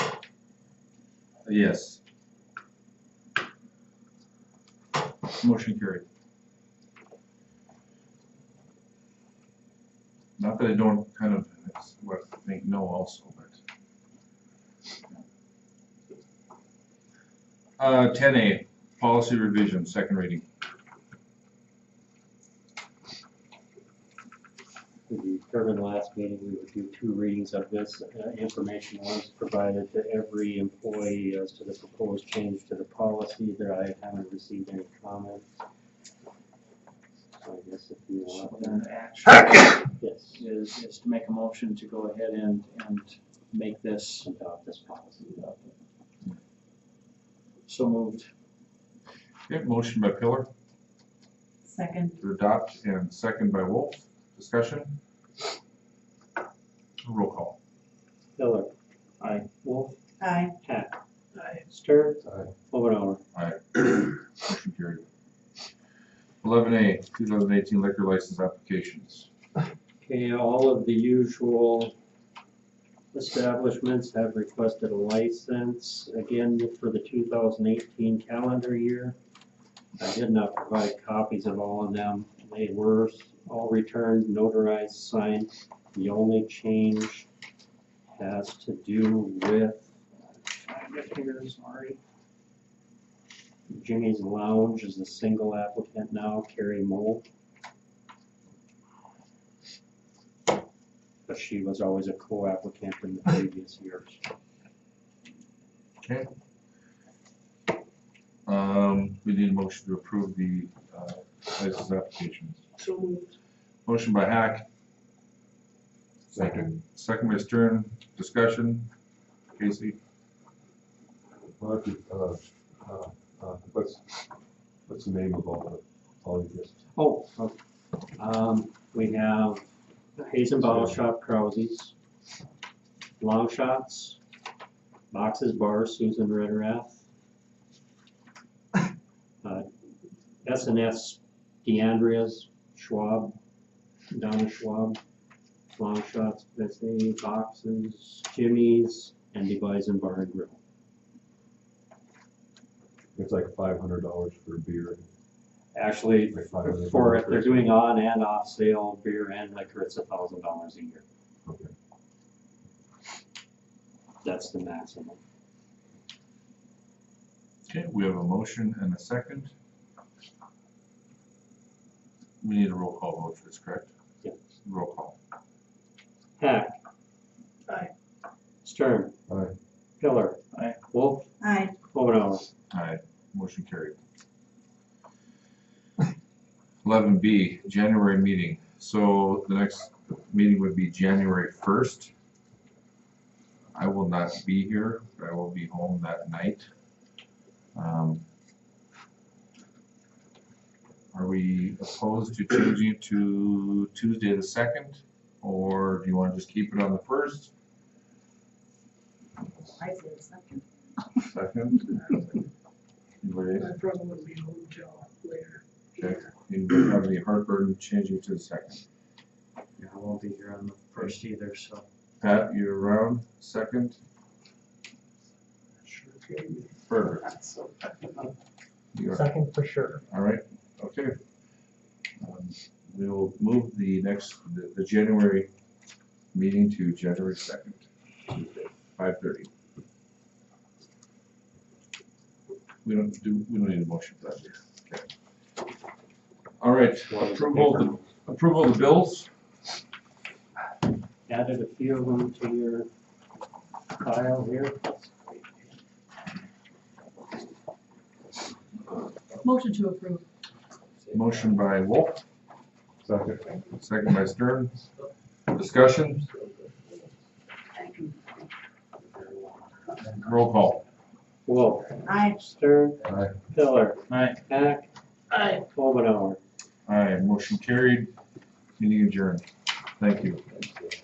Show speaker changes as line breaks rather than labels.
Yes. Motion carried. Not that I don't kind of, it's what I think no also, but. Uh, ten A, policy revision, second reading.
We determined last meeting we would do two readings of this uh, information once provided to every employee as to the proposed change to the policy. There I haven't received any comments. So I guess if you
So
want,
then action
yes,
is, is to make a motion to go ahead and, and make this
adopt this policy.
so moved.
Okay, motion by Pillar
Second,
to adopt and second by Wolf. Discussion? Roll call.
Miller.
Aye.
Wolf.
aye.
Hack. Aye. Stern. Aye. Over
Motion carried. Eleven A, two thousand eighteen liquor license applications.
Okay, all of the usual establishments have requested a license, again, for the two thousand eighteen calendar year. I did not provide copies of all of them. They were all returned, notarized, signed. The only change has to do with
Find it here, sorry.
Jimmy's Lounge is a single applicant now, Carrie Mole. But she was always a co-applicant in the previous years.
Um, we need a motion to approve the, uh, license applications.
So moved.
Motion by Hack.
Second.
Second by Stern, discussion. Casey,
Well, if you, uh, uh, uh, What's, what's the name of all the, all of this?
Oh, okay. um, we have Hazen Bottle Shop, Krause's, Long Shots, Boxes Bar, Susan Ritterath, uh, S and S, DeAndrea's, Schwab, Donna Schwab, Long Shots, Betsy, Boxes, Jimmy's, and Levi's and Bar and Grill.
It's like five hundred dollars for a beer.
Actually,
like $500
For if
for-
they're doing on and off sale beer and liquor, it's a thousand dollars a year.
Okay.
That's the maximum.
okay, we have a motion and a second. We need a roll call vote for this, correct?
Yes.
Roll call.
Hack.
Aye.
Stern.
Aye.
Pillar.
Aye.
Wolf.
Aye.
Omenauer.
Aye, motion carried. Eleven B, January meeting, so the next meeting would be January first. I will not be here, but I will be home that night. Um, Are we opposed to changing it to Tuesday the second, or do you wanna just keep it on the first?
I say second.
Second? Anybody?
I probably wouldn't be home till later.
Okay, anybody have any heartburn changing to the second?
Yeah, I won't be here on the first either, so.
Pat, you around, second,
Sure, okay.
perfect. You are,
Second for sure.
all right, okay. Um, We will move the next, the, the January meeting to January second, Tuesday, five thirty. We don't do, we don't need a motion for that here, okay. All right, approval, of the- approval of the bills,
Added a few of them to your file here.
Motion to approve.
motion by Wolf,
Second.
Second by Stern. Discussion? Roll call.
Wolf.
Aye.
Stern.
Aye.
Pillar.
Aye.
Hack. Aye. Omenauer.
Aye, motion carried. Meeting adjourned. Thank you.